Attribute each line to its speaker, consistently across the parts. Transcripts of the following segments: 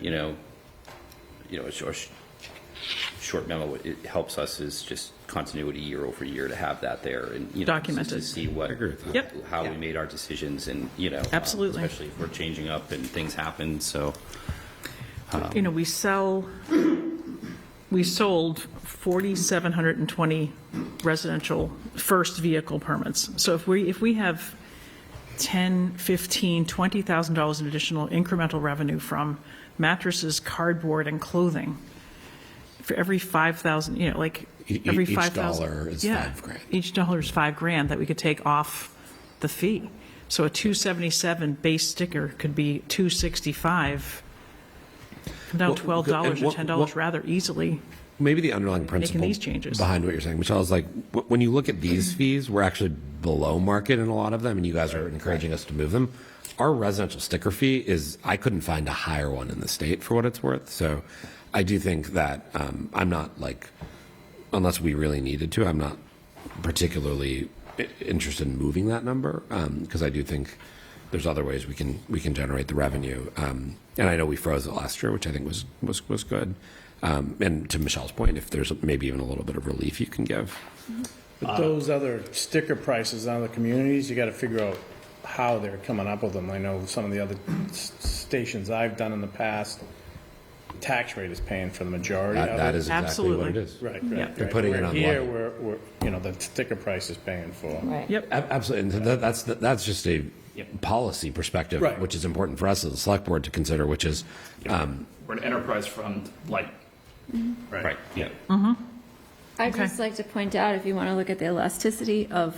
Speaker 1: you know, you know, a short, short memo, it helps us is just continuity year over year to have that there and, you know.
Speaker 2: Documented.
Speaker 1: To see what.
Speaker 3: agree with that.
Speaker 2: Yep.
Speaker 1: How we made our decisions and, you know. um,
Speaker 2: Absolutely.
Speaker 1: Especially if we're changing up and things happen, so.
Speaker 2: You know, we sell, we sold 4,720 residential first vehicle permits. So if we, if we have 10, 15, $20,000 in additional incremental revenue from mattresses, cardboard, and clothing, for every 5,000, you know, like,
Speaker 3: E- e-
Speaker 2: every
Speaker 3: each
Speaker 2: 5,000.
Speaker 3: dollar is
Speaker 2: Yeah.
Speaker 3: five grand.
Speaker 2: Each dollar is five grand that we could take off the fee. So a 277 base sticker could be 265 come down
Speaker 3: Well,
Speaker 2: twelve dollars
Speaker 3: and
Speaker 2: or
Speaker 3: what-
Speaker 2: ten dollars
Speaker 3: what-
Speaker 2: rather easily.
Speaker 3: Maybe the underlying principle
Speaker 2: these changes. Mm-hmm.
Speaker 3: behind what you're saying, Michelle, is like w- when you look at these fees, we're actually below market in a lot of them, and you guys are encouraging us to move them. Our residential sticker fee is, I couldn't find a higher one in the state for what it's worth. So I do think that um, I'm not like, unless we really needed to, I'm not particularly i- interested in moving that number because I do think there's other ways we can we can generate the revenue. Um, and I know we froze it last year, which I think was was was good. Um, and to Michelle's point, if there's maybe even a little bit of relief you can give,
Speaker 4: But
Speaker 3: Uh,
Speaker 4: those other sticker prices on the communities, you gotta figure out how they're coming up with them. I know some of the other s- stations I've done in the past, tax rate is paying for the majority of
Speaker 3: that,
Speaker 4: it.
Speaker 3: that is exactly what it
Speaker 2: Absolutely.
Speaker 3: is.
Speaker 4: Right,
Speaker 2: Yeah.
Speaker 4: right.
Speaker 2: They're
Speaker 4: right.
Speaker 3: putting it
Speaker 4: Where
Speaker 3: on
Speaker 4: Here,
Speaker 3: level.
Speaker 4: we're, we're, you know, the sticker price is paying for.
Speaker 5: Right.
Speaker 2: Yep.
Speaker 3: Ab- Absolutely, and so that, that's that's just a policy perspective,
Speaker 4: Right.
Speaker 3: which is important for us as a select board to consider. Which is, um,
Speaker 6: We're an enterprise fund, like,
Speaker 1: Right, yeah.
Speaker 5: I'd just like to point out, if you want to look at the elasticity of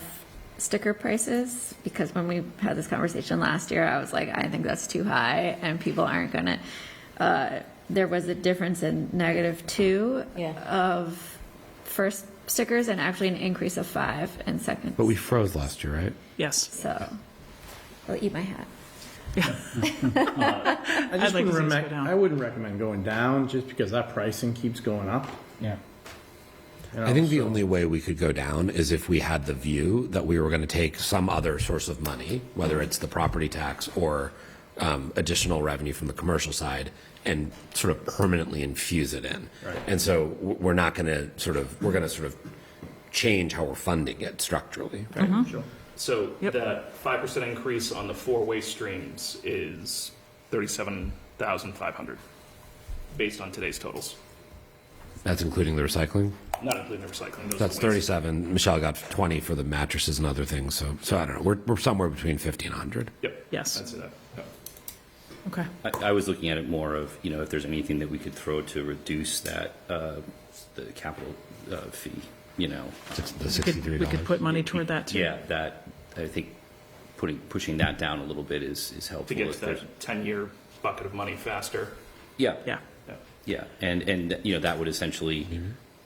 Speaker 5: sticker prices, because when we had this conversation last year, I was like, I think that's too high, and people aren't gonna, uh, there was a difference in negative two
Speaker 7: Yeah.
Speaker 5: of first stickers and actually an increase of five in seconds.
Speaker 3: but we froze last year, right?
Speaker 2: Yes.
Speaker 5: So, I'll eat my hat.
Speaker 4: I just
Speaker 2: like to see us go
Speaker 4: wouldn't recommend,
Speaker 2: down.
Speaker 4: I wouldn't recommend going down, just because that pricing keeps going up.
Speaker 8: Yeah.
Speaker 2: Oh,
Speaker 3: I think the only way we could go down is if we had the view that we were going to take some other source of money, whether it's the property tax or um, additional revenue from the commercial side, and sort of permanently infuse it in. And so w- we're not going to sort of, we're going to sort of change how we're funding it structurally. right?
Speaker 6: so
Speaker 2: Yep.
Speaker 6: that five percent increase on the four-way streams is thirty-seven thousand five hundred, based on today's totals,
Speaker 3: That's including the recycling.
Speaker 6: not including the recycling. those are
Speaker 3: That's
Speaker 6: the waste.
Speaker 3: 37. Michelle got 20 for the mattresses and other things. So, so I don't know. We're, we're somewhere between 50 and 100.
Speaker 6: Yep.
Speaker 2: Yes.
Speaker 6: I'd say that. Yep.
Speaker 2: Okay.
Speaker 1: I, I was looking at it more of, you know, if there's anything that we could throw to reduce that, uh, the capital, uh, fee, you know.
Speaker 3: Six- The
Speaker 2: We could-
Speaker 3: $63.
Speaker 2: We could put money toward that too.
Speaker 1: Yeah, that, I think putting, pushing that down a little bit is, is helpful.
Speaker 6: To get
Speaker 1: if
Speaker 6: to
Speaker 1: there's-
Speaker 6: that ten-year bucket of money faster.
Speaker 1: Yeah.
Speaker 2: Yeah.
Speaker 1: Yeah, and, and, you know, that would essentially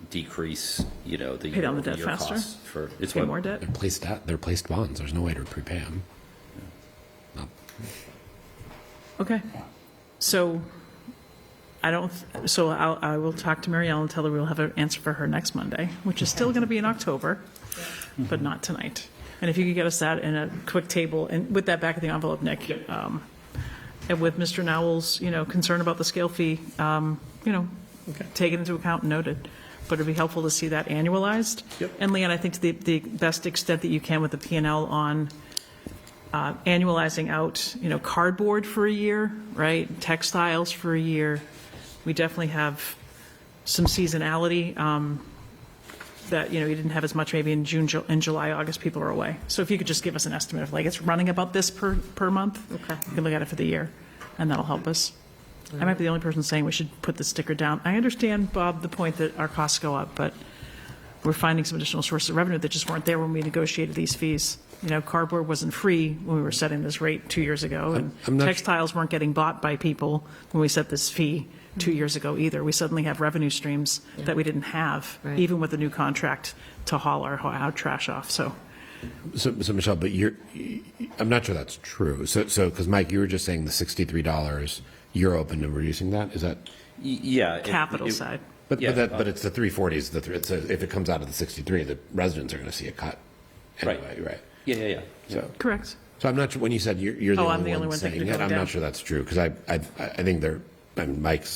Speaker 1: decrease, you know, the.
Speaker 2: Pay down the debt
Speaker 1: year-over-year
Speaker 2: faster?
Speaker 1: costs For, it's
Speaker 2: Pay
Speaker 1: what.
Speaker 2: more debt.
Speaker 3: They're placed at, they're placed bonds. There's no way to prepay them.
Speaker 2: Okay. So I don't, th- so I'll, I will talk to Mary Ellen and tell her we'll have an answer for her next Monday, which is still going to be in October, but not tonight. And if you could get us that in a quick table and with that back of the envelope, Nick. um, And with Mr. Nowell's, you know, concern about the scale fee, um, you know, taken into account and noted. But it'd be helpful to see that annualized. Yep. And Leon, I think to the, the best extent that you can with the P and L on uh, annualizing out, you know, cardboard for a year, right? Textiles for a year. We definitely have some seasonality um, that, you know, you didn't have as much maybe in June, Ju- in July, August, people are away. So if you could just give us an estimate of like, it's running about this per, per month? Okay. You can look at it for the year, and that'll help us. I might be the only person saying we should put the sticker down. I understand, Bob, the point that our costs go up, but we're finding some additional sources of revenue that just weren't there when we negotiated these fees. You know, cardboard wasn't free when we were setting this rate two years ago,
Speaker 3: I'm
Speaker 2: and
Speaker 3: not-
Speaker 2: textiles weren't getting bought by people when we set this fee two years ago either. We suddenly have revenue streams that we didn't have,
Speaker 7: Right.
Speaker 2: even with the new contract to haul our, our trash off, so.
Speaker 3: So, so Michelle, but you're, I'm not sure that's true. So, so, because Mike, you were just saying the $63, you're open to reducing that? Is that?
Speaker 1: Y- Yeah. it-
Speaker 2: Capital
Speaker 1: it-
Speaker 2: side.
Speaker 3: But,
Speaker 1: Yeah,
Speaker 3: but that, but
Speaker 1: uh,
Speaker 3: it's the 340s, the, three- it's, a- if it comes out of the 63, the residents are going to see a cut
Speaker 1: Right.
Speaker 3: anyway, right?
Speaker 1: Yeah, yeah, yeah.
Speaker 3: So,
Speaker 2: Correct.
Speaker 3: so I'm not, sure when you said you're, you're the
Speaker 2: Oh, I'm
Speaker 3: only
Speaker 2: the only
Speaker 3: one
Speaker 2: one thinking
Speaker 3: saying
Speaker 2: of
Speaker 3: it,
Speaker 2: going
Speaker 3: I'm
Speaker 2: down.
Speaker 3: not sure that's true, because I, I, I think there, I mean, Mike's